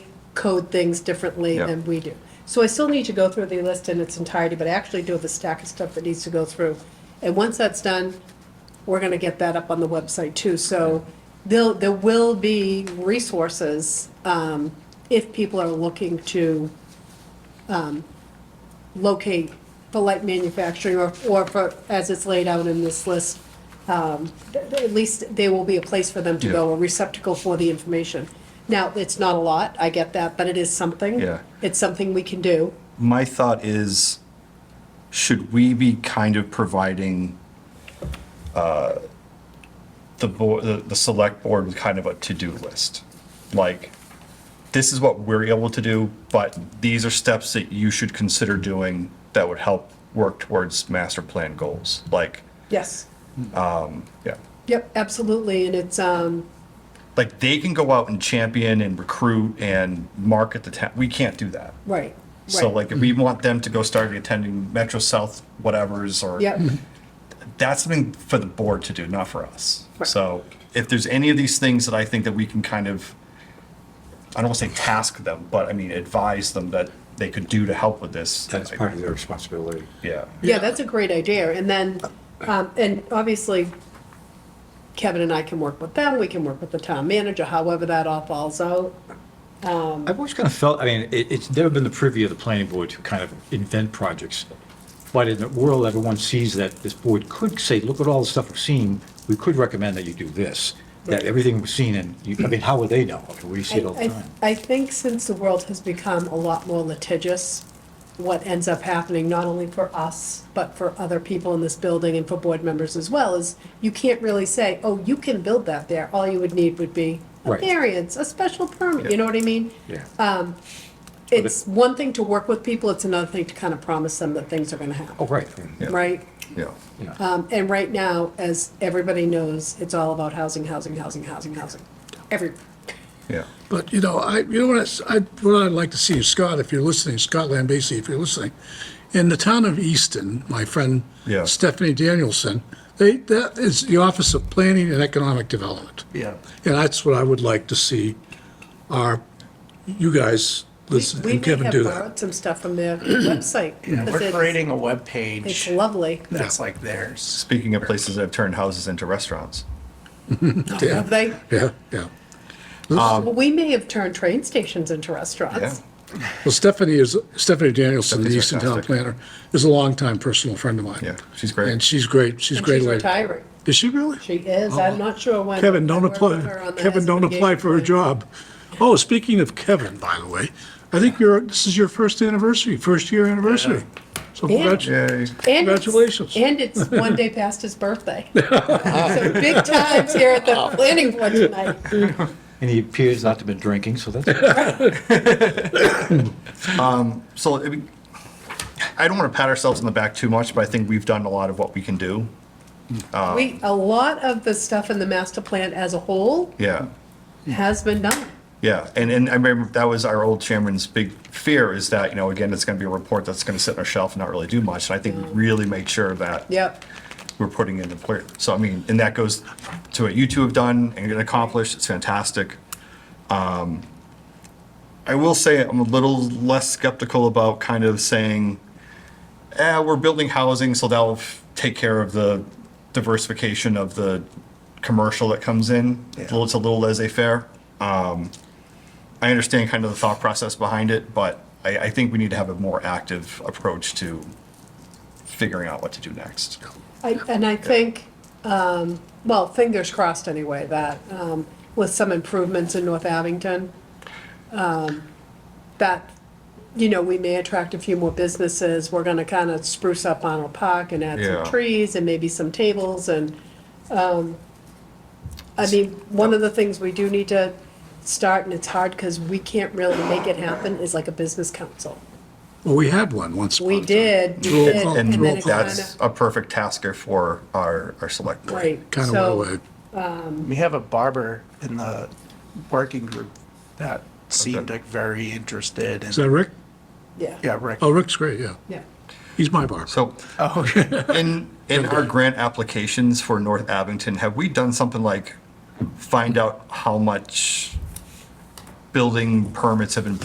code things differently Yeah. than we do. So I still need to go through the list in its entirety, but I actually do have a stack of stuff that needs to go through. And once that's done, we're gonna get that up on the website too, so there'll, there will be resources, um, if people are looking to, um, locate for light manufacturing or, or for, as it's laid out in this list, um, th- th- at least there will be a place for them to go, Yeah. a receptacle for the information. Now, it's not a lot, I get that, but it is something. Yeah. It's something we can do. My thought is, should we be kind of providing uh, the board, the, the select board with kind of a to-do list? Like, this is what we're able to do, but these are steps that you should consider doing that would help work towards master plan goals. Like, Yes. yeah, Yep, absolutely, and it's, um, like they can go out and champion and recruit and market the town. We can't do that. right. So right. like, if we want them to go start attending Metro South whatever's or Yep, that's something for the board to do, not for us. Right. So if there's any of these things that I think that we can kind of, I don't want to say task them, but I mean advise them that they could do to help with this. That's I- part of their responsibility. Yeah. yeah, that's a great idea, and then, um, and obviously, Kevin and I can work with them, we can work with the town manager, however that all falls out. I've always kind of felt, I mean, it, it's never been the privy of the planning board to kind of invent projects. But in the world, everyone sees that this board could say, look at all the stuff we've seen, we could recommend that you do this, that everything we've seen, and you, I mean, how would they know? I mean, We see it all I- the I- time. I think since the world has become a lot more litigious, what ends up happening, not only for us, but for other people in this building and for board members as well, is you can't really say, oh, you can build that there, all you would need would be a Right. variance, a special permit, you know what I mean? Yeah. Uh, It's one thing to work with people, it's another thing to kind of promise them that things are gonna happen, Oh, right. Yeah. right? Yeah. Yeah. Um, and right now, as everybody knows, it's all about housing, housing, housing, housing, housing, every, Yeah. But, you know, I, you know what, I s- I, what I'd like to see is, Scott, if you're listening, Scott Lambesi, if you're listening, in the town of Easton, my friend Yeah. Stephanie Danielson, they, that is the Office of Planning and Economic Development. Yeah. And that's what I would like to see our, you guys, listen, We and may Kevin have do that. borrowed some stuff from their website. We're 'cause it's- creating a It's webpage lovely. that's like theirs. Speaking of places that have turned houses into restaurants. Have they, Yeah, yeah. Um, well, we may have turned train stations into restaurants. Well, Stephanie is, Stephanie Danielson, the Stephanie's Easton Town fantastic. Planner, is a longtime personal friend of mine. Yeah, she's great. And she's great, she's And great. she's lady. retiring. Is she really? She is, I'm not sure when. Kevin, don't I worked with her apply, on the Kevin, don't SBA apply for a plan. job. Oh, speaking of Kevin, by the way, I think you're, this is your first anniversary, first year anniversary. So Yeah. congratulations. Yay. And it's- Congratulations. And it's one day past his birthday. So big times here at the planning board tonight. And he appears not to have been drinking, so that's. So I mean, I don't want to pat ourselves on the back too much, but I think we've done a lot of what we can do. Uh, We, a lot of the stuff in the master plan as a whole Yeah. has been done. Yeah, and, and I remember that was our old chairman's big fear is that, you know, again, it's gonna be a report that's gonna sit on a shelf and not really do much. And I think we really make sure that Yep. we're putting in the plan. So I mean, and that goes to what you two have done and accomplished. It's fantastic. Um, I will say I'm a little less skeptical about kind of saying, eh, we're building housing, so that'll f- take care of the diversification of the commercial that comes in. It's a little- It's a little laissez-faire. Um, I understand kind of the thought process behind it, but I, I think we need to have a more active approach to figuring out what to do next. I- And I think, um, well, fingers crossed anyway, that um, with some improvements in North Abington, um, that, you know, we may attract a few more businesses. We're going to kind of spruce up Arnold Park and add Yeah. some trees and maybe some tables and, um, I mean, one of the things we do need to start, and it's hard because we can't really make it happen, is like a business council. Well, we had one once. upon a We time. did, we Roll did, call, and And then roll it call. kind that's of, a perfect tasker for our, our select board. right. Kind of went so- away. We have a barber in the working group that seemed like very interested Is that and, Rick? Yeah. yeah, Rick. Oh, Rick's great, yeah. Yeah. He's my barber. So in, in our grant applications for North Abington, have we done something like find out how much building permits have been